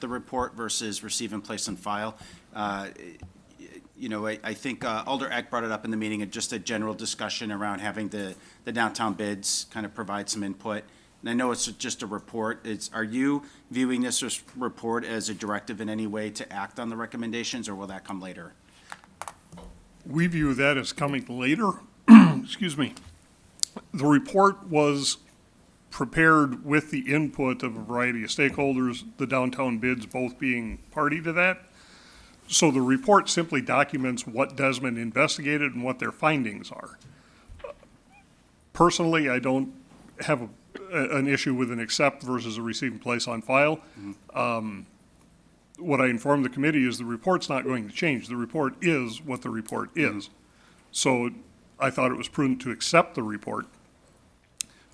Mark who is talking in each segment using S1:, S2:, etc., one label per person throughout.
S1: the report versus receive and place on file. Uh, You know, I, I think uh, Alder Eck brought it up in the meeting, and just a general discussion around having the, the downtown bids kind of provide some input. And I know it's just a report, it's, are you viewing this as- report as a directive in any way to act on the recommendations, or will that come later?
S2: We view that as coming later. Excuse me. The report was prepared with the input of a variety of stakeholders, the downtown bids both being party to that. So the report simply documents what Desmond investigated and what their findings are. Personally, I don't have a- a- an issue with an accept versus a receive and place on file what I informed the committee is the report's not going to change. The report is what the report is. So I thought it was prudent to accept the report.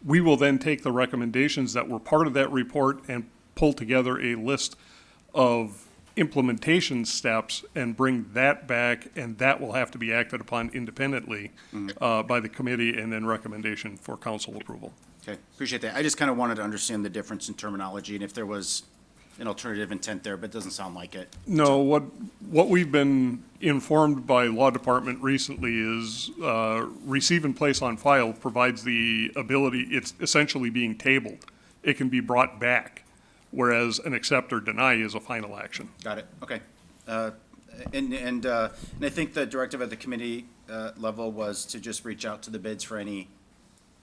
S2: We will then take the recommendations that were part of that report and pull together a list of implementation steps and bring that back, and that will have to be acted upon independently uh, by the committee and then recommendation for council approval.
S1: Okay, appreciate that. I just kind of wanted to understand the difference in terminology, and if there was an alternative intent there, but it doesn't sound like it.
S2: No, what, what we've been informed by law department recently is, uh, receive and place on file provides the ability, it's essentially being tabled. It can be brought back, whereas an accept or deny is a final action.
S1: Got it, okay. Uh, And, and, uh, and I think the directive at the committee uh, level was to just reach out to the bids for any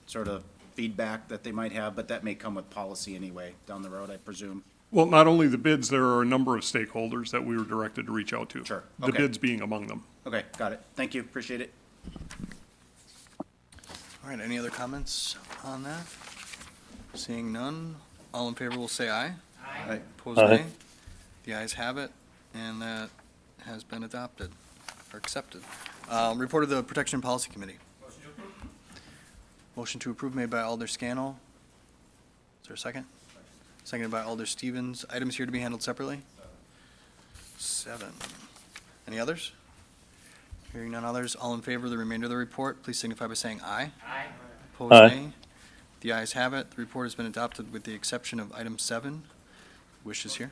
S1: sort of feedback that they might have, but that may come with policy anyway, down the road, I presume.
S2: Well, not only the bids, there are a number of stakeholders that we were directed to reach out to.
S1: Sure,
S2: The
S1: okay.
S2: bids being among them.
S1: Okay, got it. Thank you, appreciate it.
S3: All right, any other comments on that? Seeing none, all in favor will say aye.
S1: Aye.
S3: Opposed, nay. The ayes have it, and that has been adopted, or accepted. Um, Report of the Protection and Policy Committee. Motion to approve made by Alder Scannell. Is there a second? Seconded by Alder Stevens. Items here to be handled separately? Seven. Any others? Hearing none others, all in favor of the remainder of the report, please signify by saying aye. Aye. Opposed,
S4: Aye.
S3: nay. The ayes have it. The report has been adopted with the exception of item seven. Wishes here?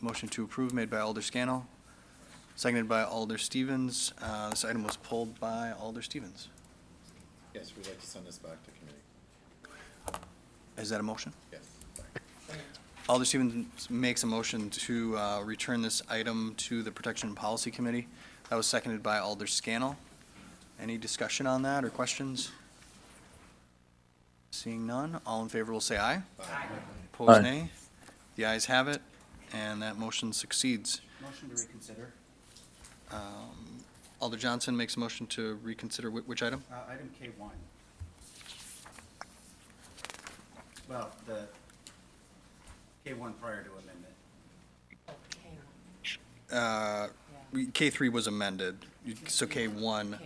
S3: Motion to approve made by Alder Scannell, seconded by Alder Stevens. Uh, This item was pulled by Alder Stevens.
S5: Yes, we'd like to send this back to committee.
S3: Is that a motion?
S5: Yes.
S3: Alder Stevens makes a motion to uh, return this item to the Protection and Policy Committee. That was seconded by Alder Scannell. Any discussion on that or questions? Seeing none, all in favor will say aye. Aye. Opposed,
S4: Aye.
S3: nay. The ayes have it, and that motion succeeds.
S1: Motion to reconsider,
S3: Um, Alder Johnson makes a motion to reconsider whi- which item?
S1: Uh, item K one. Well, the K one prior to amendment.
S3: Uh, we- K3 was amended, so K1.
S6: Okay, one.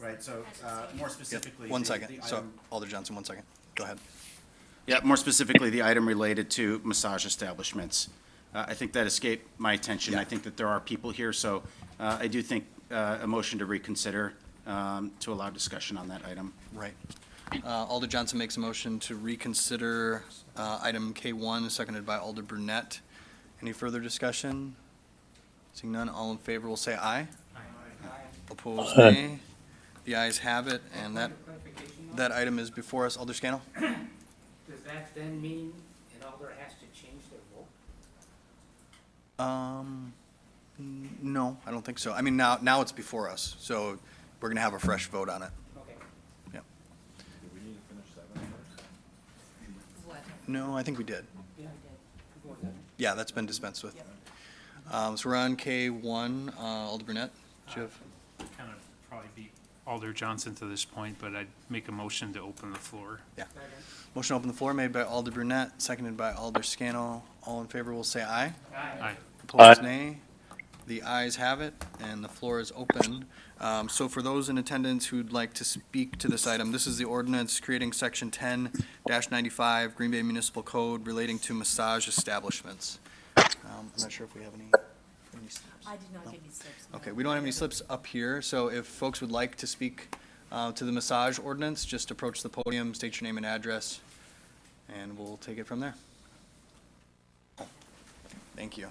S1: Right, so, uh, more specifically.
S3: One
S1: the-
S3: second,
S1: the
S3: so
S1: item-
S3: Alder Johnson, one second. Go ahead.
S1: Yeah, more specifically, the item related to massage establishments. Uh, I think that escaped my attention. I
S3: Yeah.
S1: think that there are people here, so, uh, I do think, uh, a motion to reconsider, um, to allow discussion on that item.
S3: Right. Uh, Alder Johnson makes a motion to reconsider uh, item K1, seconded by Alder Brunette. Any further discussion? Seeing none, all in favor will say aye. Opposed,
S4: Aye.
S3: nay. The ayes have it, and that,
S7: Clarification, though?
S3: that item is before us. Alder Scannell?
S7: Does that then mean an alder has to change their vote?
S3: Um, n- no, I don't think so. I mean, now, now it's before us, so we're going to have a fresh vote on it.
S7: Okay.
S5: Do we need to finish seven first?
S6: What?
S3: No, I think we did.
S7: Yeah.
S3: Yeah, that's been dispensed with. Um, So we're on K1. Uh, Alder Brunette, do you have?
S8: kind of probably beat Alder Johnson to this point, but I'd make a motion to open the floor.
S3: Motion open the floor made by Alder Brunette, seconded by Alder Scannell. All in favor will say aye.
S8: Aye.
S3: Opposed, nay. The ayes have it, and the floor is open. Um, So for those in attendance who'd like to speak to this item, this is the ordinance creating Section 10-95 Green Bay Municipal Code relating to massage establishments. Um, I'm not sure if we have any. any slips.
S6: I did not get any slips. no.
S3: Okay, we don't have any slips up here, so if folks would like to speak uh, to the massage ordinance, just approach the podium, state your name and address, and we'll take it from there. Thank you.